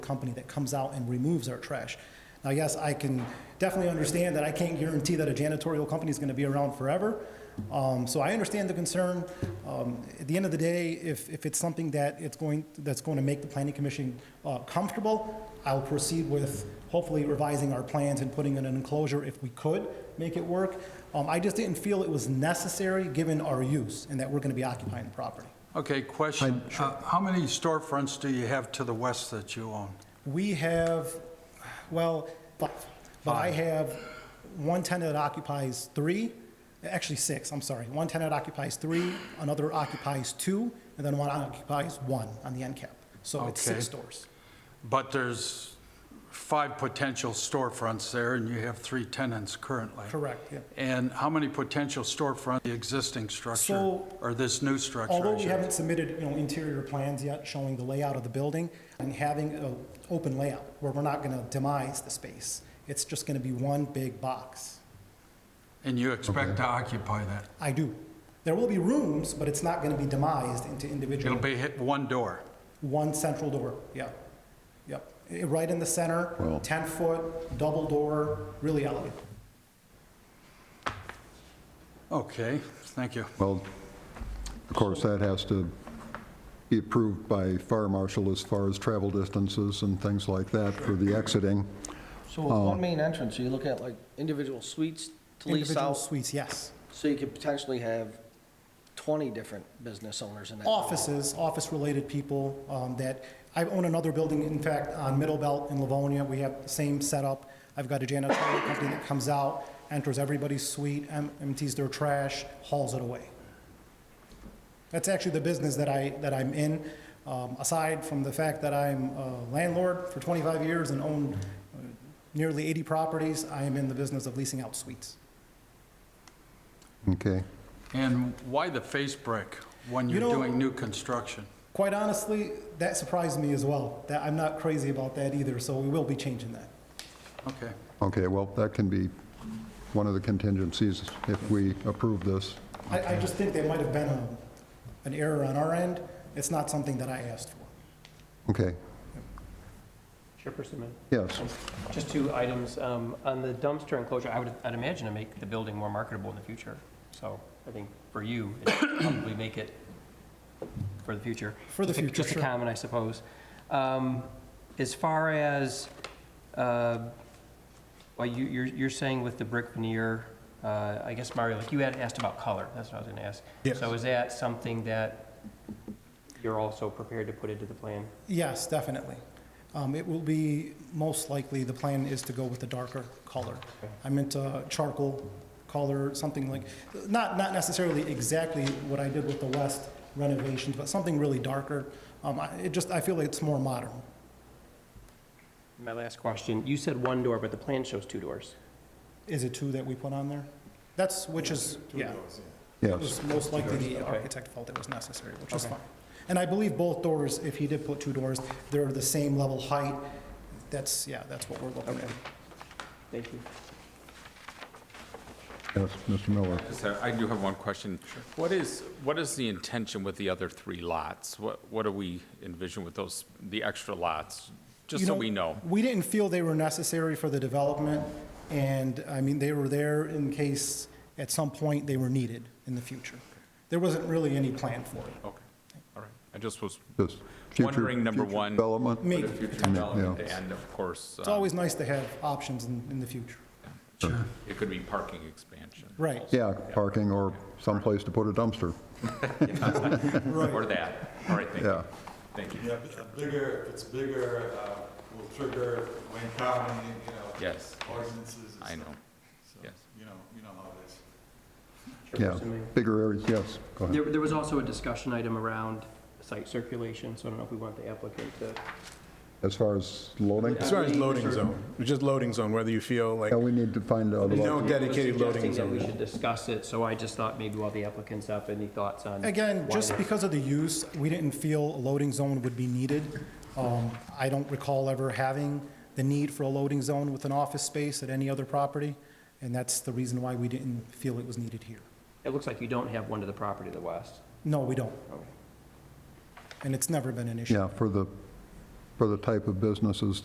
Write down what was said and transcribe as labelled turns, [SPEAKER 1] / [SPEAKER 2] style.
[SPEAKER 1] company that comes out and removes our trash. Now, yes, I can definitely understand that I can't guarantee that a janitorial company is going to be around forever. Um, So I understand the concern. Um, At the end of the day, if, if it's something that it's going, that's going to make the planning commission uh, comfortable, I'll proceed with hopefully revising our plans and putting in an enclosure if we could make it work. Um, I just didn't feel it was necessary, given our use, and that we're going to be occupying the property.
[SPEAKER 2] Okay, question. Uh, How many storefronts do you have to the west that you own?
[SPEAKER 1] We have, well, five, but I have one tenant that occupies three, actually six, I'm sorry. One tenant occupies three, another occupies two, and then one occupies one on the end cap. So it's six
[SPEAKER 2] Okay.
[SPEAKER 1] stores.
[SPEAKER 2] But there's five potential storefronts there, and you have three tenants currently.
[SPEAKER 1] Correct, yeah.
[SPEAKER 2] And how many potential storefront, the existing structure,
[SPEAKER 1] So-
[SPEAKER 2] or this new structure? I
[SPEAKER 1] Although we
[SPEAKER 2] should-
[SPEAKER 1] haven't submitted, you know, interior plans yet showing the layout of the building and having an open layout where we're not going to demise the space. It's just going to be one big box.
[SPEAKER 2] And you expect to occupy that?
[SPEAKER 1] I do. There will be rooms, but it's not going to be demised into individual.
[SPEAKER 2] It'll be hit one door.
[SPEAKER 1] One central door, yeah, yep. Eh, Right in the center, 10-foot, double door, really elegant.
[SPEAKER 2] Okay, thank you.
[SPEAKER 3] Well, of course, that has to be approved by fire marshal as far as travel distances and things like that for the exiting.
[SPEAKER 4] So with one main entrance, you look at like individual suites to lease
[SPEAKER 1] Individual
[SPEAKER 4] out,
[SPEAKER 1] suites, yes.
[SPEAKER 4] so you could potentially have 20 different business owners in that. building.
[SPEAKER 1] Offices, office-related people um, that, I own another building, in fact, on Middle Belt in Livonia, we have the same setup. I've got a janitorial company that comes out, enters everybody's suite, em- empties their trash, hauls it away. That's actually the business that I, that I'm in. Um, Aside from the fact that I'm a landlord for 25 years and own uh, nearly 80 properties, I am in the business of leasing out suites.
[SPEAKER 3] Okay,
[SPEAKER 2] And why the face brick when
[SPEAKER 1] You
[SPEAKER 2] you're
[SPEAKER 1] know-
[SPEAKER 2] doing new construction?
[SPEAKER 1] Quite honestly, that surprised me as well, that I'm not crazy about that either, so we will be changing that.
[SPEAKER 2] Okay,
[SPEAKER 3] okay, well, that can be one of the contingencies if we approve this.
[SPEAKER 1] I, I just think there might have been a, an error on our end. It's not something that I asked for.
[SPEAKER 3] Okay,
[SPEAKER 5] Chairperson, Min-
[SPEAKER 3] yes,
[SPEAKER 5] just two items. Um, On the dumpster enclosure, I would, I'd imagine to make the building more marketable in the future. So I think for you, it probably make it for the future.
[SPEAKER 1] For the
[SPEAKER 5] Just a-
[SPEAKER 1] future,
[SPEAKER 5] Just a
[SPEAKER 1] sure.
[SPEAKER 5] comment, I suppose. Um, As far as, uh, well, you, you're, you're saying with the brick veneer, uh, I guess, Mario, like you had asked about color. That's what I was going to ask.
[SPEAKER 1] Yes.
[SPEAKER 5] So is that something that you're also prepared to put into the plan?
[SPEAKER 1] Yes, definitely. Um, it will be, most likely, the plan is to go with the darker color. I meant uh, charcoal color, something like, not, not necessarily exactly what I did with the west renovations, but something really darker. Um, I, it just, I feel like it's more modern.
[SPEAKER 5] My last question, you said one door, but the plan shows two doors.
[SPEAKER 1] Is it two that we put on there? That's, which is, yeah. It
[SPEAKER 3] yes.
[SPEAKER 1] was most likely the architect felt it was necessary, which is fine. And I believe both doors, if he did put two doors, they're the same level height. That's, yeah, that's what we're looking at.
[SPEAKER 5] Thank you.
[SPEAKER 3] Yes, Mr. Miller.
[SPEAKER 6] So I do have one question. What is, what is the intention with the other three lots? What, what do we envision with those, the extra lots? Just
[SPEAKER 1] You
[SPEAKER 6] so we know.
[SPEAKER 1] We didn't feel they were necessary for the development, and, I mean, they were there in case at some point they were needed in the future. There wasn't really any plan for it.
[SPEAKER 6] Okay, all right. I just was
[SPEAKER 3] Just future-
[SPEAKER 6] wondering, number
[SPEAKER 3] future
[SPEAKER 6] one.
[SPEAKER 3] Development,
[SPEAKER 6] for
[SPEAKER 1] Maybe.
[SPEAKER 6] the future
[SPEAKER 1] It's
[SPEAKER 6] development, and of course, um,
[SPEAKER 1] always nice to have options in, in the future.
[SPEAKER 6] it could be parking expansion.
[SPEAKER 1] Right.
[SPEAKER 3] yeah, parking or someplace to put a dumpster.
[SPEAKER 6] Or that. All right, thank
[SPEAKER 3] Yeah.
[SPEAKER 6] you. Thank you.
[SPEAKER 7] Yeah, but a bigger, if it's bigger, uh, will trigger Wayne County, you know.
[SPEAKER 6] Yes,
[SPEAKER 7] Ordinances and
[SPEAKER 6] I know.
[SPEAKER 7] stuff. So,
[SPEAKER 6] Yes.
[SPEAKER 7] You know, you know how it is.
[SPEAKER 3] Yeah, bigger areas, yes, go ahead.
[SPEAKER 5] There, there was also a discussion item around site circulation, so I don't know if we want the applicant to.
[SPEAKER 3] As far as loading,
[SPEAKER 8] As far as loading zone, just loading zone, whether you feel like,
[SPEAKER 3] yeah, we need to find out
[SPEAKER 8] there's
[SPEAKER 3] about
[SPEAKER 8] no dedicated loading
[SPEAKER 5] Suggesting that we
[SPEAKER 8] zone.
[SPEAKER 5] should discuss it, so I just thought maybe while the applicant's up, any thoughts on?
[SPEAKER 1] Mm-hmm. Again,
[SPEAKER 5] why
[SPEAKER 1] just
[SPEAKER 5] that-
[SPEAKER 1] because of the use, we didn't feel a loading zone would be needed. Um, I don't recall ever having the need for a loading zone with an office space at any other property, and that's the reason why we didn't feel it was needed here.
[SPEAKER 5] It looks like you don't have one to the property to the west.
[SPEAKER 1] No, we don't, and it's never been an issue.
[SPEAKER 3] Yeah, for the for the type of businesses